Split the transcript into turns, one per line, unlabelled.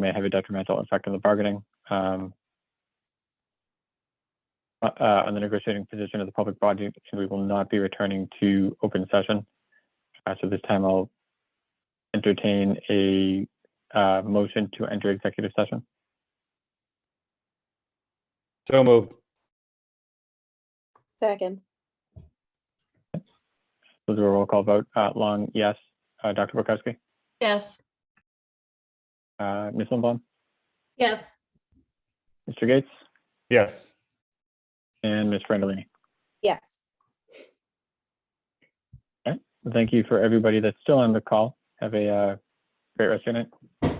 may have a detrimental effect on the bargaining, um, uh, uh, on the negotiating position of the public body, and we will not be returning to open session. Uh, so this time I'll entertain a, uh, motion to enter executive session.
So moved.
Second,
We'll do a roll call vote. Uh, Long, yes. Uh, Dr. Burkowski,
Yes.
uh, Ms. Limbaum,
Yes.
Mr. Gates,
Yes.
and Ms. Brandalini.
yes.
Thank you for everybody that's still on the call. Have a, uh, great rest of your night.